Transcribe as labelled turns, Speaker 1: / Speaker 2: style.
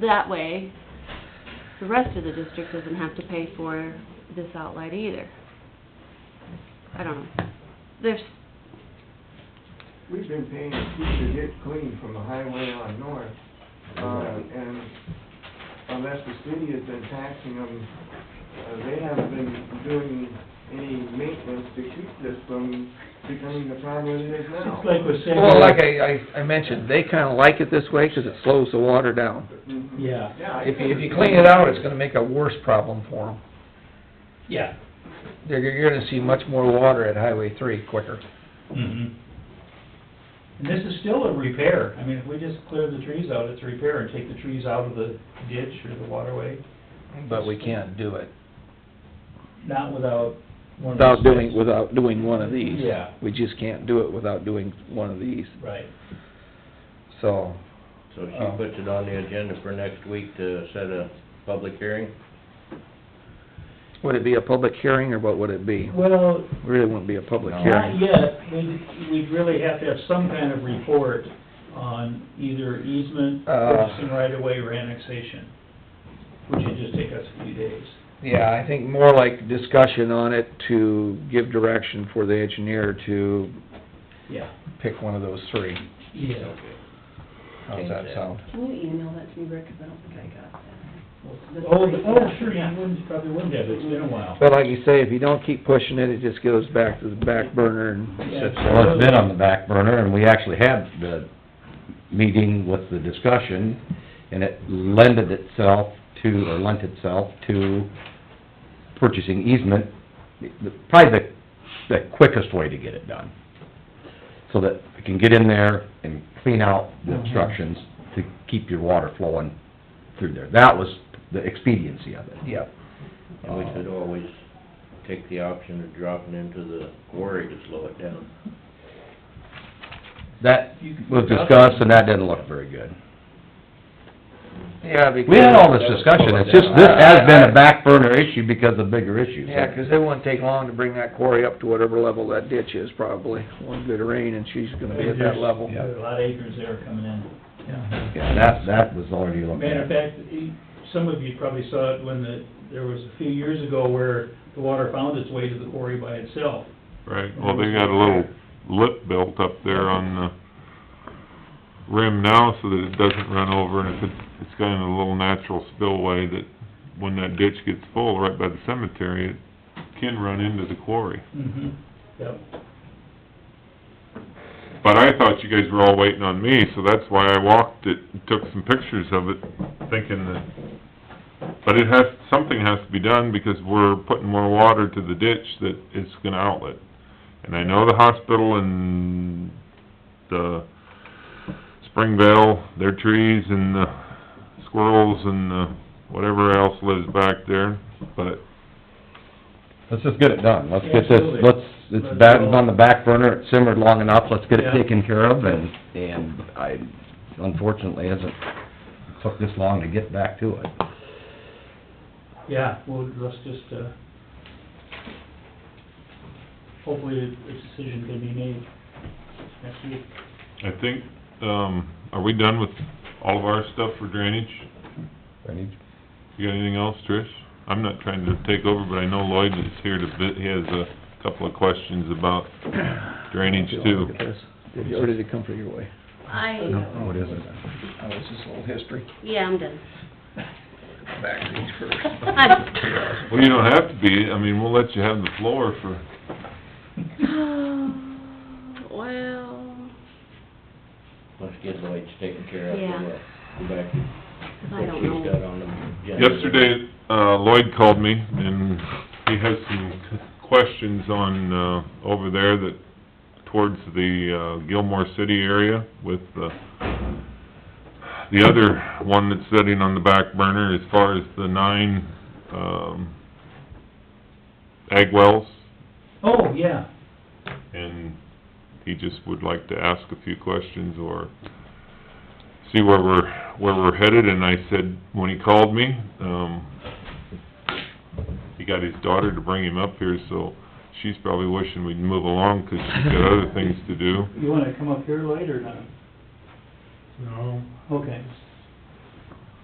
Speaker 1: that way, the rest of the district doesn't have to pay for this outlet either. I don't know. There's,
Speaker 2: We've been paying a fee to get clean from the highway on north, uh, and unless the city has been taxing them, uh, they haven't been doing any maintenance to keep this from becoming the problem it is now.
Speaker 3: It's like we're saying.
Speaker 4: Well, like I, I, I mentioned, they kinda like it this way, 'cause it slows the water down.
Speaker 2: Mhm.
Speaker 3: Yeah.
Speaker 2: Yeah. I
Speaker 4: If you, if you
Speaker 2: think-
Speaker 4: clean it out, it's gonna make a worse problem for them.
Speaker 3: Yeah.
Speaker 4: They're, you're gonna see much more water at Highway three quicker.
Speaker 3: Mhm. And this is still a repair. I mean, if we just clear the trees out, it's a repair and take the trees out of the ditch or the waterway,
Speaker 4: But we can't do it
Speaker 3: not without one of those.
Speaker 4: without doing, without doing one of these.
Speaker 3: Yeah.
Speaker 4: We just can't do it without doing one of these,
Speaker 3: Right.
Speaker 4: so,
Speaker 5: So
Speaker 4: Oh.
Speaker 5: she puts it on the agenda for next week to set a public hearing?
Speaker 4: would it be a public hearing, or what would it be?
Speaker 3: Well,
Speaker 4: Really wouldn't be a public
Speaker 5: No.
Speaker 4: hearing.
Speaker 5: Yeah.
Speaker 3: Not yet, we'd, we'd really have to have some kind of report on either easement,
Speaker 4: Uh.
Speaker 3: purchasing right of way, or annexation, which would just take us a few days.
Speaker 4: Yeah, I think more like discussion on it to give direction for the engineer to
Speaker 3: Yeah.
Speaker 4: pick one of those three.
Speaker 3: Yeah.
Speaker 4: How's that sound?
Speaker 6: Can you email that to me, Rick, 'cause I don't think I got that.
Speaker 3: Oh, the- oh, sure, yeah, wouldn't, probably wouldn't have, it's been a while.
Speaker 4: But like you say, if you don't keep pushing it, it just goes back to the back burner and sits there.
Speaker 7: Well, it's been on the back burner, and we actually had the meeting with the discussion, and it lended itself to, or lent itself to purchasing easement, the- probably the, the quickest way to get it done. So that we can get in there and clean out the obstructions to keep your water flowing through there. That was the expediency of it.
Speaker 4: Yeah.
Speaker 5: And we could always take the option of dropping into the quarry to slow it down.
Speaker 7: That was discussed, and that didn't look very good.
Speaker 4: Yeah, because...
Speaker 7: We had all this discussion, it's just, this has been a back burner issue because of bigger issues.
Speaker 4: Yeah, 'cause it won't take long to bring that quarry up to whatever level that ditch is probably. One good rain and she's gonna be at that level.
Speaker 7: Yeah.
Speaker 3: There are a lot of acres there coming in.
Speaker 7: Yeah, that, that was already looked
Speaker 3: Matter of
Speaker 7: at.
Speaker 3: fact, e- some of you probably saw it when the, there was a few years ago where the water found its way to the quarry by itself.
Speaker 8: Right, well, they got a little lip built up there on the rim now so that it doesn't run over, and if it, it's got a little natural spillway that when that ditch gets full right by the cemetery, it can run into the quarry.
Speaker 3: Mm-hmm. Yep.
Speaker 8: But I thought you guys were all waiting on me, so that's why I walked it, and took some pictures of it, thinking that, but it has, something has to be done because we're putting more water to the ditch that it's gonna outlet. And I know the hospital and the Springvale, their trees and the squirrels and the whatever else lives back there, but
Speaker 7: Let's just get it done, let's get this,
Speaker 3: Absolutely.
Speaker 7: let's, it's back, it's on the back burner, it simmered long enough, let's get it
Speaker 3: Yeah.
Speaker 7: taken care of, and, and I, unfortunately, hasn't took this long to get back to it.
Speaker 3: Yeah, well, let's just, uh, hopefully a decision can be made next week.
Speaker 8: I think, um, are we done with all of our stuff for drainage? You got anything else, Trish? I'm not trying to take over, but I know Lloyd is here to, bit- he has a couple of questions about drainage too.
Speaker 4: Look at this. Did you- Or did it come from your way?
Speaker 1: I,
Speaker 7: No, it isn't.
Speaker 4: Oh, it's just a little history.
Speaker 1: yeah, I'm done.
Speaker 4: Back to each first.
Speaker 8: Well, you don't have to be, I mean, we'll let you have the floor for,
Speaker 1: Well,
Speaker 5: Let's get Lloyd's taken care of.
Speaker 1: Yeah.
Speaker 5: Go back to
Speaker 1: I
Speaker 5: what
Speaker 1: don't
Speaker 5: she's
Speaker 1: know.
Speaker 5: got on the agenda.
Speaker 8: yesterday, uh, Lloyd called me and he has some questions on, uh, over there that, towards the, uh, Gilmore City area with the, the other one that's sitting on the back burner as far as the nine, um, ag wells.
Speaker 3: Oh, yeah.
Speaker 8: and he just would like to ask a few questions or see where we're, where we're headed, and I said, when he called me, um, he got his daughter to bring him up here, so she's probably wishing we'd move along, 'cause she's got other things to do.
Speaker 3: You wanna come up here later or not?
Speaker 9: No,
Speaker 3: Okay.